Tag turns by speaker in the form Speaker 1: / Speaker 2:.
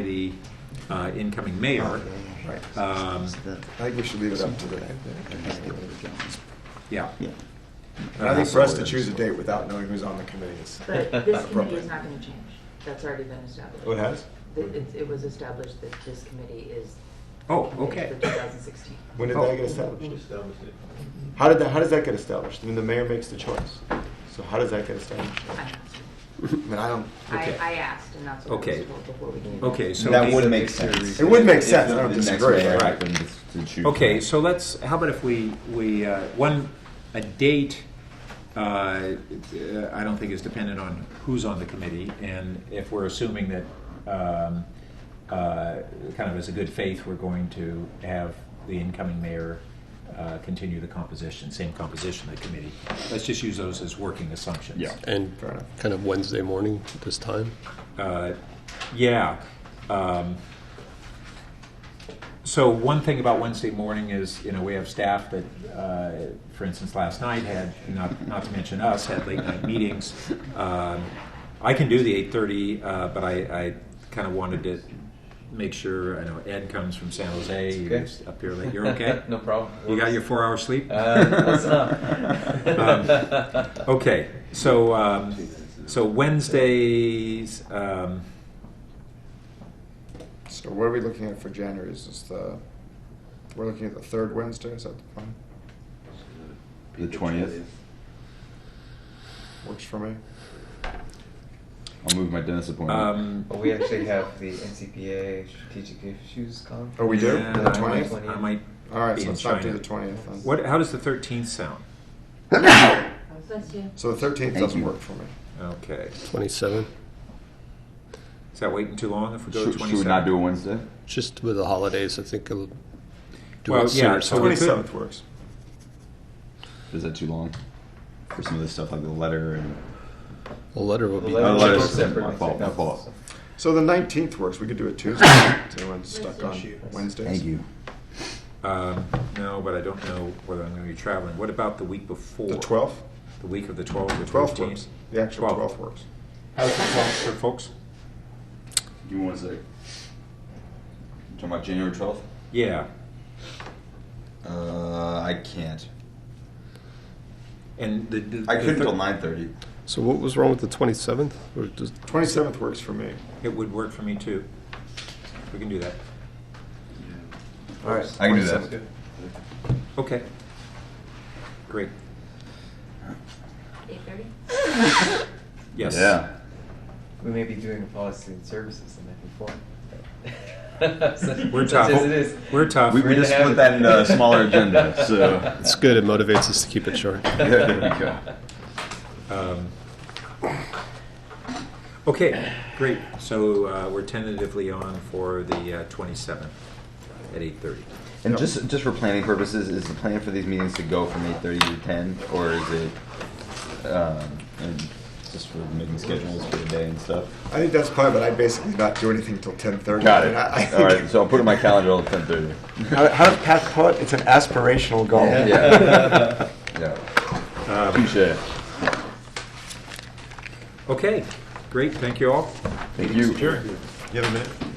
Speaker 1: the uh, incoming
Speaker 2: Oh,
Speaker 1: mayor.
Speaker 3: Right. I
Speaker 1: Um,
Speaker 4: I think we should leave it up to the.
Speaker 1: Yeah.
Speaker 3: Yeah.
Speaker 4: And I think for us to choose a date without knowing who's on the committee is.
Speaker 5: But
Speaker 4: not
Speaker 5: this committee
Speaker 4: appropriate.
Speaker 5: is not going to change. That's already been established.
Speaker 4: Oh, it has?
Speaker 5: It, it- it was established that this committee is.
Speaker 1: Oh,
Speaker 5: is
Speaker 1: okay.
Speaker 5: The 2016.
Speaker 4: When did
Speaker 1: Oh.
Speaker 4: that get established? How did that, how does that get established? I mean, the mayor makes the choice. So how does that get established?
Speaker 5: I
Speaker 4: I
Speaker 5: asked.
Speaker 4: mean, I don't,
Speaker 5: I,
Speaker 1: Okay.
Speaker 5: I asked, and that's what I
Speaker 1: Okay.
Speaker 5: was told before we came.
Speaker 1: Okay, so.
Speaker 2: that
Speaker 1: maybe-
Speaker 2: would make sense.
Speaker 4: It would make sense, I don't disagree,
Speaker 1: right.
Speaker 2: Right.
Speaker 1: Okay, so let's, how about if we, we, uh, one, a date, uh, uh, I don't think is dependent on who's on the committee, and if we're assuming that, um, uh, kind of as a good faith, we're going to have the incoming mayor uh, continue the composition, same composition of the committee. Let's just use those as working assumptions.
Speaker 2: Yeah.
Speaker 6: And
Speaker 4: Fair enough.
Speaker 6: kind of Wednesday morning this time?
Speaker 1: Uh, Yeah. Um, So one thing about Wednesday morning is, you know, we have staff that, uh, for instance, last night had, not, not to mention us, had late night meetings. Um, I can do the eight thirty, uh, but I, I kind of wanted to make sure, I know Ed comes from San Jose, he
Speaker 2: Okay.
Speaker 1: was up here late, you're okay?
Speaker 2: No problem.
Speaker 1: You got your four hour sleep?
Speaker 2: Uh, what's
Speaker 1: Um,
Speaker 2: up?
Speaker 7: Um,
Speaker 1: Okay,
Speaker 7: uh,
Speaker 1: so, um, so Wednesdays, um,
Speaker 4: so what are we looking at for January? Is this the, we're looking at the third Wednesday, is that the plan?
Speaker 2: The 20th.
Speaker 4: Works for me.
Speaker 2: I'll move my dentist appointment.
Speaker 1: um,
Speaker 7: Well, we actually have the NCPA strategic issues con.
Speaker 4: Oh, we do?
Speaker 1: Yeah,
Speaker 4: The
Speaker 1: I might-
Speaker 4: 20th?
Speaker 1: I might.
Speaker 4: All right,
Speaker 1: be
Speaker 4: so
Speaker 1: in
Speaker 4: let's not do
Speaker 1: China.
Speaker 4: the 20th then.
Speaker 1: What? How does the thirteenth sound?
Speaker 5: Bless you.
Speaker 4: So the 13th
Speaker 2: Thank
Speaker 4: doesn't
Speaker 2: you.
Speaker 4: work for me.
Speaker 1: Okay.
Speaker 6: 27?
Speaker 1: Is that waiting too long if we go
Speaker 2: should,
Speaker 1: to
Speaker 2: should
Speaker 1: twenty
Speaker 2: we not do a
Speaker 1: seven?
Speaker 2: Wednesday?
Speaker 6: Just with the holidays, I think it'll do
Speaker 1: Well,
Speaker 6: it sooner.
Speaker 1: yeah, so
Speaker 6: so-
Speaker 1: we could-
Speaker 4: 27th works.
Speaker 2: Is that too long for some of this stuff, like the letter and?
Speaker 6: The letter will be,
Speaker 2: letter-
Speaker 6: I
Speaker 2: let's- my fault, my fault.
Speaker 4: So the 19th works, we could do it Tuesday. Is anyone stuck on Wednesdays?
Speaker 1: Um, no, but I don't know whether I'm going to be traveling. What about the week before?
Speaker 4: The 12th?
Speaker 1: The week of the twelfth. The
Speaker 4: 12th
Speaker 1: thirteenth?
Speaker 4: works. The actual 12th works.
Speaker 1: How's the twelfth for folks?
Speaker 2: Give me one sec. You talking about January 12th?
Speaker 1: Yeah,
Speaker 2: Uh, I can't.
Speaker 1: and the. the
Speaker 2: I
Speaker 1: the
Speaker 2: couldn't
Speaker 1: thir-
Speaker 2: till 9:30.
Speaker 6: so what was wrong with the 27th? Or just,
Speaker 4: 27th works for me.
Speaker 1: It would work for me too. We can do that.
Speaker 4: All right.
Speaker 2: I can do that.
Speaker 1: Okay. Great.
Speaker 5: 8:30?
Speaker 1: Yes.
Speaker 2: Yeah.
Speaker 7: We may be doing a policy and services the night before. So,
Speaker 1: We're
Speaker 7: such
Speaker 1: tough.
Speaker 7: as it is.
Speaker 1: We're tough.
Speaker 2: We,
Speaker 7: We're
Speaker 2: we
Speaker 7: in the
Speaker 2: just put
Speaker 7: habit.
Speaker 2: that in a smaller agenda, so
Speaker 6: it's good. It motivates us to keep it short.
Speaker 2: Yeah, there we go.
Speaker 1: Um, Okay, great. So uh, we're tentatively on for the uh, 27th at 8:30.
Speaker 2: And just just for planning purposes, is the plan for these meetings to go from eight thirty to ten, or is it um, and just for making schedules for the day and stuff?
Speaker 4: I think that's probably, but I basically not do anything till 10:30.
Speaker 2: Got
Speaker 4: And I- I
Speaker 2: it.
Speaker 4: think-
Speaker 2: All right, so I'll put it in my calendar at ten thirty.
Speaker 4: How, how does Pat call it? It's an aspirational goal.
Speaker 2: Yeah. yeah. Touche.
Speaker 1: Okay, great. Thank you all.
Speaker 2: Thank you.
Speaker 4: You have a minute?